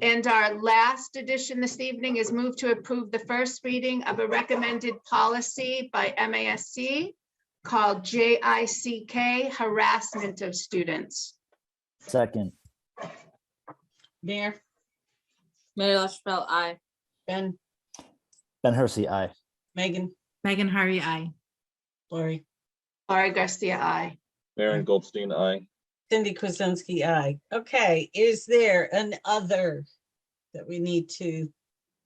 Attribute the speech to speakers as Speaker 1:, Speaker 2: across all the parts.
Speaker 1: And our last addition this evening is move to approve the first reading of a recommended policy by MASC called JICK harassment of students.
Speaker 2: Second,
Speaker 3: Mayor,
Speaker 4: Mayor LaChapelle, aye.
Speaker 3: Ben,
Speaker 2: Ben Hersey, aye.
Speaker 3: Megan,
Speaker 5: Megan Harvey, I.
Speaker 3: Lori,
Speaker 1: Laura Garcia, I.
Speaker 6: Maren Goldstein, aye.
Speaker 3: Cindy Kuzensky, aye. Okay, is there an other that we need to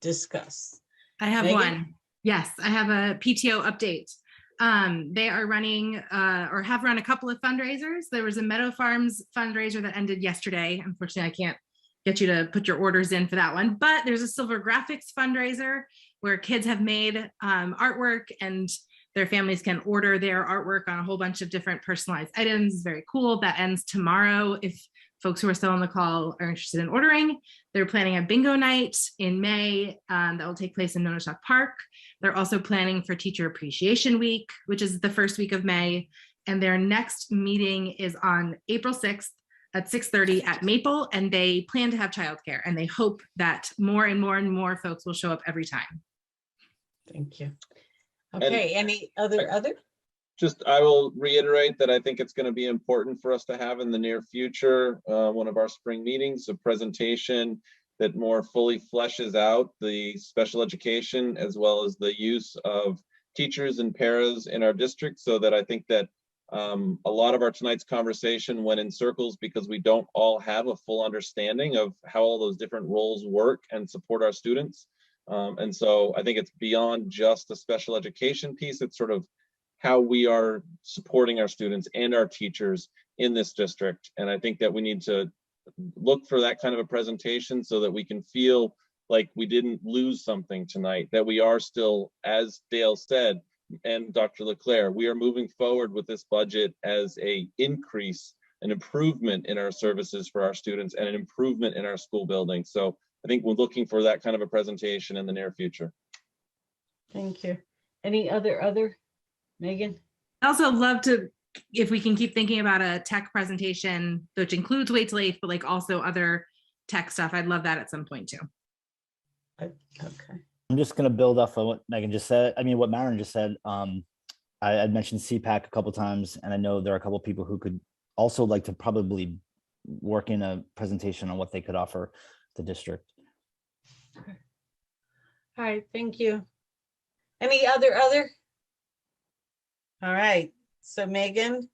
Speaker 3: discuss?
Speaker 5: I have
Speaker 3: Megan?
Speaker 5: one. Yes, I have a PTO update. Um, they are running uh, or have run a couple of fundraisers. There was a Meadow Farms fundraiser that ended yesterday. Unfortunately, I can't get you to put your orders in for that one, but there's a Silver Graphics fundraiser where kids have made um, artwork and their families can order their artwork on a whole bunch of different personalized items. It's Very cool. That ends tomorrow. If folks who are still on the call are interested in ordering, they're planning a bingo night in May um, that will take place in Nonotuck Park. They're also planning for Teacher Appreciation Week, which is the first week of May. And their next meeting is on April 6th at 6:30 at Maple, and they plan to have childcare. And they hope that more and more and more folks will show up every time.
Speaker 3: Thank you. Okay, any other, other?
Speaker 6: Just, I will reiterate that I think it's going to be important for us to have in the near future, uh, one of our spring meetings, a presentation that more fully fleshes out the special education as well as the use of teachers and paras in our district so that I think that um, a lot of our tonight's conversation went in circles because we don't all have a full understanding of how all those different roles work and support our students. Um, and so I think it's beyond just the special education piece. It's sort of how we are supporting our students and our teachers in this district. And I think that we need to look for that kind of a presentation so that we can feel like we didn't lose something tonight, that we are still, as Dale said, and Dr. Leclaire, we are moving forward with this budget as a increase, an improvement in our services for our students and an improvement in our school building. So I think we're looking for that kind of a presentation in the near future.
Speaker 3: Thank you. Any other, other? Megan?
Speaker 5: I also love to, if we can keep thinking about a tech presentation, which includes Wait Till Eighth, but like also other tech stuff. I'd love that at some point too.
Speaker 3: Okay.
Speaker 2: I'm just gonna build off of what Megan just said. I mean, what Maren just said. Um, I, I mentioned CPAC a couple times, and I know there are a couple people who could also like to probably work in a presentation on what they could offer the district.
Speaker 3: All right, thank you. Any other, other? All right, so Megan,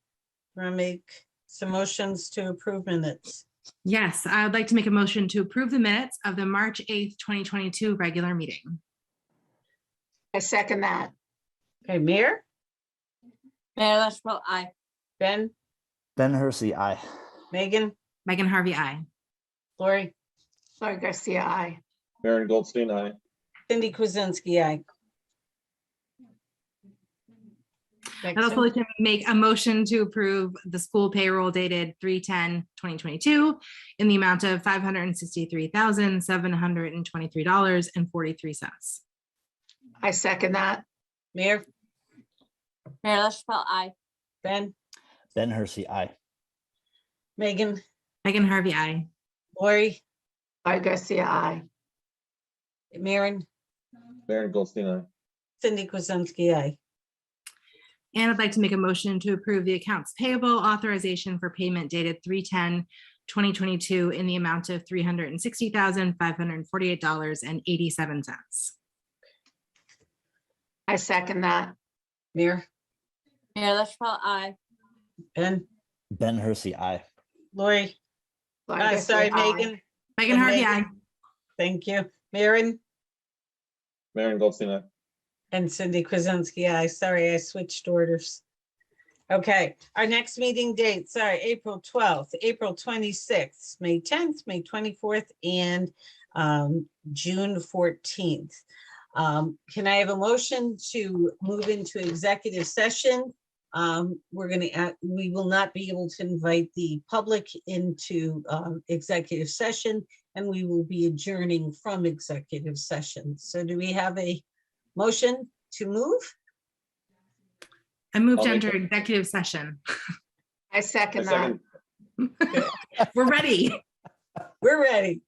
Speaker 3: we're gonna make some motions to approve minutes.
Speaker 5: Yes, I would like to make a motion to approve the minutes of the March 8th, 2022 regular meeting.
Speaker 1: I second that.
Speaker 3: Okay, Mayor,
Speaker 4: Mayor LaChapelle, aye.
Speaker 3: Ben,
Speaker 2: Ben Hersey, aye.
Speaker 3: Megan,
Speaker 5: Megan Harvey, I.
Speaker 3: Lori,
Speaker 1: Laura Garcia, I.
Speaker 6: Maren Goldstein, aye.
Speaker 3: Cindy Kuzensky, aye.
Speaker 5: I'd also like to make a motion to approve the school payroll dated 3-10-2022 in the amount of five hundred and sixty-three thousand, seven hundred and twenty-three dollars and forty-three cents.
Speaker 1: I second that.
Speaker 3: Mayor,
Speaker 4: Mayor LaChapelle, aye.
Speaker 3: Ben,
Speaker 2: Ben Hersey, aye.
Speaker 3: Megan,
Speaker 5: Megan Harvey, I.
Speaker 3: Lori,
Speaker 1: Laura Garcia, I.
Speaker 3: Maren,
Speaker 6: Maren Goldstein, aye.
Speaker 3: Cindy Kuzensky, aye.
Speaker 5: And I'd like to make a motion to approve the accounts payable authorization for payment dated 3-10-2022 in the amount of three hundred and sixty thousand, five hundred and forty-eight dollars and eighty-seven cents.
Speaker 1: I second that.
Speaker 3: Mayor,
Speaker 4: Mayor LaChapelle, aye.
Speaker 3: Ben,
Speaker 2: Ben Hersey, aye.
Speaker 3: Lori,
Speaker 1: Laura
Speaker 3: uh,
Speaker 1: Garcia,
Speaker 3: sorry,
Speaker 1: aye.
Speaker 3: Megan,
Speaker 5: Megan
Speaker 3: And
Speaker 5: Harvey,
Speaker 3: Megan.
Speaker 5: I.
Speaker 3: thank you. Maren
Speaker 6: Maren Goldstein, aye.
Speaker 3: and Cindy Kuzensky, aye. Sorry, I switched orders. Okay, our next meeting date, sorry, April twelfth, April twenty-sixth, May tenth, May twenty-fourth, and um, June fourteenth. Um, can I have a motion to move into executive session? Um, we're gonna, act- we will not be able to invite the public into, um, executive session, and we will be adjourning from executive session. So do we have a motion to move?
Speaker 5: I moved
Speaker 6: I'll
Speaker 5: to
Speaker 6: make
Speaker 5: enter
Speaker 6: a-
Speaker 5: executive session.
Speaker 1: I
Speaker 6: I
Speaker 1: second that.
Speaker 6: second-
Speaker 5: We're ready.
Speaker 3: We're ready.